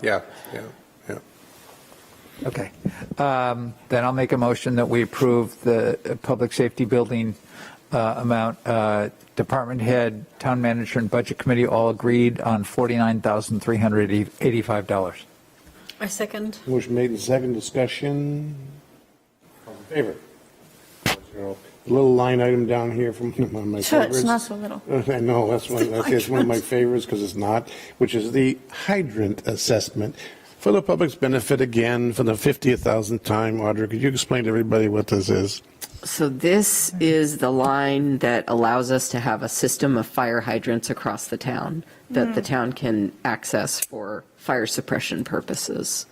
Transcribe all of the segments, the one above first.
Yeah, yeah, yeah. Okay. Um, Then I'll make a motion that we approve the uh, public safety building uh, amount. Uh, Department head, town manager, and budget committee all agreed on $49,385. I second. Motion made in second discussion. All in favor? Zero. Little line item down here from one of my Sure, it's favorites. not so little. I know, that's one, that's it's one of my favorites because it's not, which is the hydrant assessment. For the public's benefit again, for the 50,000th time, Audrey, could you explain to everybody what this is? So this is the line that allows us to have a system of fire hydrants across the town that the town can access for fire suppression purposes.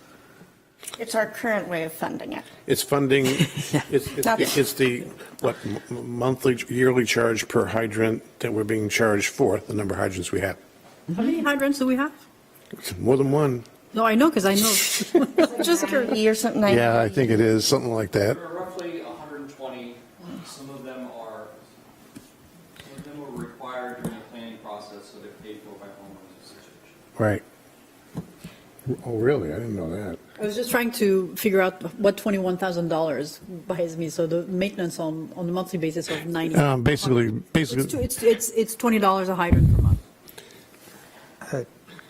It's our current way of funding it. It's funding, it's, it's it's the, what, m- m- monthly, yearly charge per hydrant that we're being charged for, the number of hydrants we have. How many hydrants do we have? It's More than one. No, I know, because I know. Just curious. Thirty or something like. Yeah, I think it is, something like that. There are roughly 120. Some of them are, some of them were required during the planning process, so they're paid for by homeowners association. Right. Oh, really? I didn't know that. I was just trying to figure out what $21,000 buys me, so the maintenance on, on a monthly basis of 90. Um, basically, It's two- basically, It's, it's, it's $20 a hydrant per month.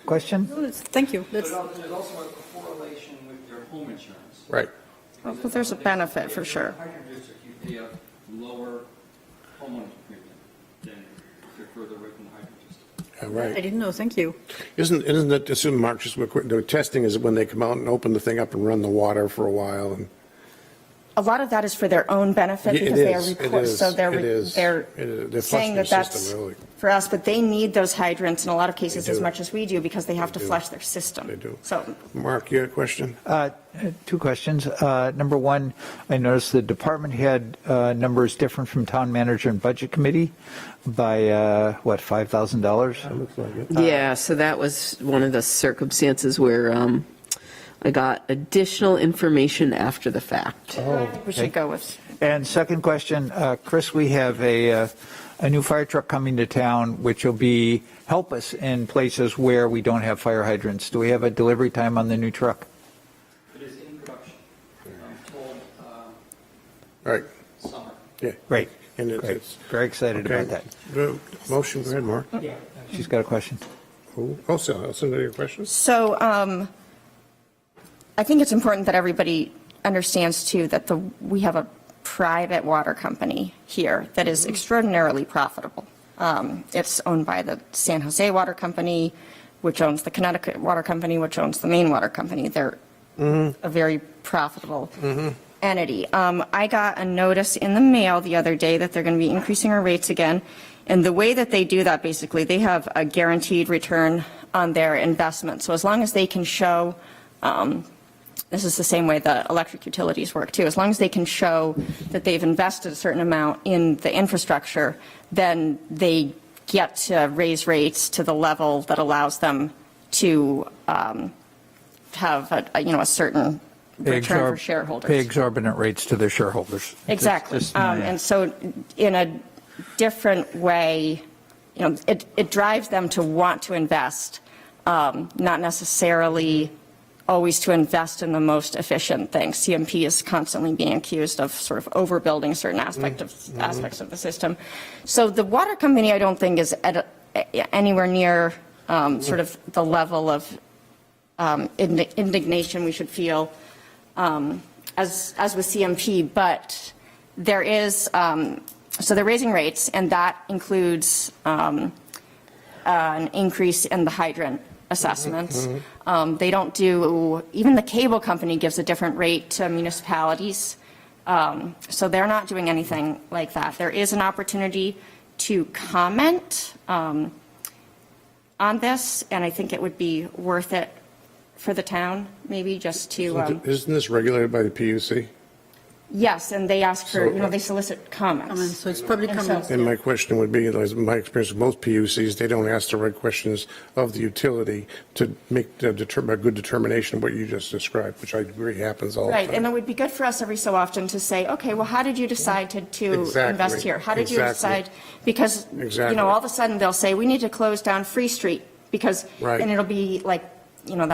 Question? No, it's- Thank you. But That's, al- there's also a correlation with your home insurance. right. Well, there's a benefit for sure. If you're in a Hydrant district, you pay a lower homeowner's premium than if you're further away from the hydrant district. Yeah, I Right. didn't know, thank you. Isn't, isn't that, assume Mark just, the testing is when they come out and open the thing up and run the water for a while and. A lot of that is for their own benefit Yeah, it because they are is, it report, is, so they're, it is, they're it is. They're flushing saying that the that's system, really. for us, but they need those hydrants in a lot of cases They as do. much as we do because they have They to do. flush their system. They do. So Mark, you had a question? Uh, Two questions. Uh, Number one, I noticed the department head uh, number is different from town manager and budget committee by, uh, what, $5,000? looks like it. Yeah, so that was one of the circumstances where um, I got additional information after the fact. I think we should go with, And second question, uh, Chris, we have a, uh, a new fire truck coming to town, which will be, help us in places where we don't have fire hydrants. Do we have a delivery time on the new truck? It is in production, um, told uh, Right, summer. yeah. Great. And it- Great. it's. Very excited about okay. that. Go- Motion, go ahead, Mark. She's got a question. Oh, Also, that's another question? so um, I think it's important that everybody understands too that the, we have a private water company here that is extraordinarily profitable. Um, It's owned by the San Jose Water Company, which owns the Connecticut Water Company, which owns the Maine Water Company. They're a very profitable entity. Um, I got a notice in the mail the other day that they're going to be increasing our rates again. And the way that they do that, basically, they have a guaranteed return on their investment. So as long as they can show, um, this is the same way the electric utilities work too, as long as they can show that they've invested a certain amount in the infrastructure, then they get to raise rates to the level that allows them to um, have, a- a, you know, a certain return for Exorb- Pay shareholders. exorbitant rates to their shareholders. Exactly. Just- just my- Um, And so in a different way, you know, it, it drives them to want to invest, um, not necessarily always to invest in the most efficient thing. CMP is constantly being accused of sort of overbuilding certain aspect of, aspects of the system. So the water company, I don't think, is at, a- a- anywhere near um, sort of the level of um, indi- indignation we should feel um, as, as with CMP, but there is, um, so they're raising rates, and that includes um, an increase in the hydrant assessments. Um, They don't do, even the cable company gives a different rate to municipalities, Um, so they're not doing anything like that. There is an opportunity to comment um, on this, and I think it would be worth it for the town, maybe, just to. um, Isn't this regulated by the PUC? Yes, and they ask for, So- you know, they solicit Comments, comments. so it's public And so- comments. And my question would be, like, my experience with most PUCs, they don't ask the right questions of the utility to make the determ- a good determination of what you just described, which I agree happens all the time. Right, and it would be good for us every so often to say, okay, well, how did you decide to, to Exactly, invest here? How did you exactly. decide? Because, you Exactly. know, all of a sudden, they'll say, we need to close down Free Street, because, Right. and it'll be like, you know,